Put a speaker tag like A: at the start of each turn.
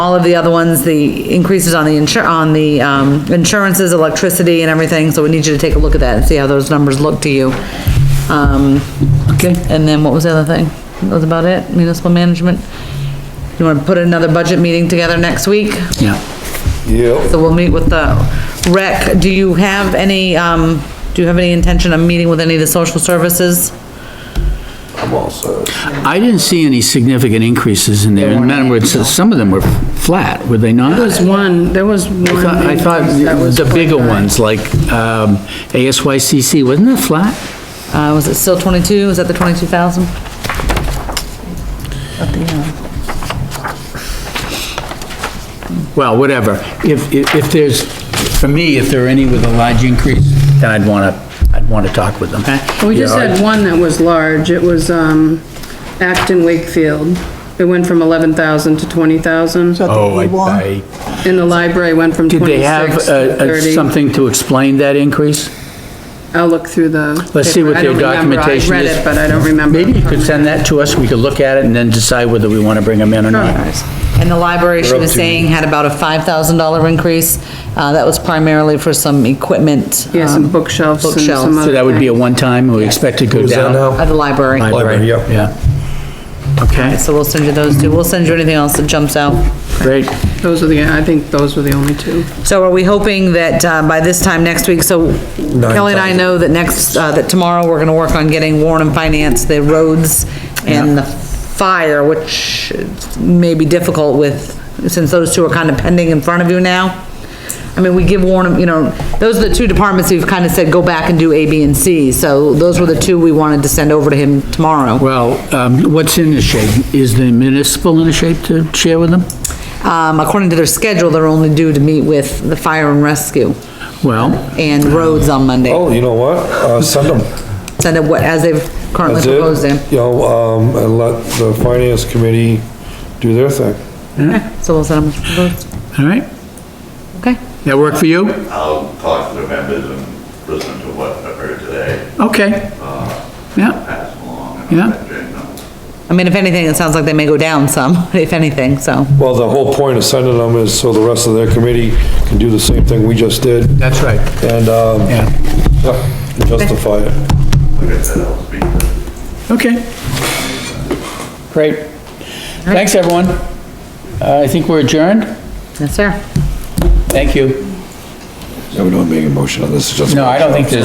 A: all of the other ones, the increases on the insur, on the, um, insurances, electricity and everything, so we need you to take a look at that and see how those numbers look to you. Um,
B: Okay.
A: and then what was the other thing? That was about it, municipal management. You wanna put another budget meeting together next week?
B: Yeah.
A: So we'll meet with the rec. Do you have any, um, do you have any intention of meeting with any of the social services?
C: I'm all set.
B: I didn't see any significant increases in there. In other words, some of them were flat, were they not?
D: There was one, there was one.
B: I thought
D: that was
B: the bigger
D: quite high.
B: ones, like, um, ASYCC, wasn't that flat?
A: Uh, was it still twenty-two? Was that the twenty-two thousand?
B: Well, whatever. If, if, if there's, for me, if there are any with a large increase, then I'd wanna, I'd wanna talk with them.
D: We just
B: Yeah, I-
D: had one that was large, it was, um, Acton Wakefield. It went from eleven thousand to twenty thousand,
B: Oh, I, I,
D: and the library went from
B: did they have,
D: twenty-six to
B: uh, uh,
D: thirty.
B: something to explain that increase?
D: I'll look through the.
B: Let's see what
D: paper. I
B: their
D: don't remember.
B: documentation
D: I read
B: is.
D: it, but I don't remember.
B: Maybe you could send that to us, we could look at it and then decide whether we wanna bring them in or not.
A: And the library, she was saying, had about a five thousand dollar increase. Uh, that was primarily for some equipment.
D: Yeah, some
A: um,
D: bookshelves and
A: bookshelves.
D: some
B: So that would be a one-time, we expect it to go
C: Who's that
B: down?
C: now?
A: At the library.
C: Library, yep.
B: Yeah. Okay,
A: So we'll send you those two. We'll send you anything else that jumps out.
B: great.
D: Those were the, I think those were the only two.
A: So are we hoping that, uh, by this time next week, so Kelly and I
C: thousand.
A: know that next, uh, that tomorrow, we're gonna work on getting Warren and Finance, the roads and the fire, which may be difficult with, since those two are kind of pending in front of you now. I mean, we give Warren, you know, those are the two departments we've kind of said, go back and do A, B, and C, so those were the two we wanted to send over to him tomorrow.
B: Well, um, what's in the shape? Is the municipal in a shape to share with them?
A: Um, according to their schedule, they're only due to meet with the fire and rescue
B: Well,
A: and roads on Monday.
C: Oh, you know what? Uh, send them.
A: send it what, as they've currently
C: That's it.
A: proposed them.
C: You know, um, and let the finance committee do their thing.
A: So we'll send them as proposed,
B: all right,
A: okay?
B: that work for you?
E: I'll talk to the members and listen to what I've heard today,
B: Okay. Yeah,
E: pass along. and
B: Yeah.
E: let Jane know.
A: I mean, if anything, it sounds like they may go down some, if anything, so.
C: Well, the whole point of sending them is so the rest of their committee can do the same thing we just did
B: that's right,
C: and, um,
B: yeah,
C: yeah, justify it.
E: Like I said, I'll speak to them.
B: okay. Great. Thanks, everyone. Uh, I think we're adjourned.
A: Yes, sir.
B: Thank you.
C: So we don't make a motion on this, just.
B: No, I don't think there's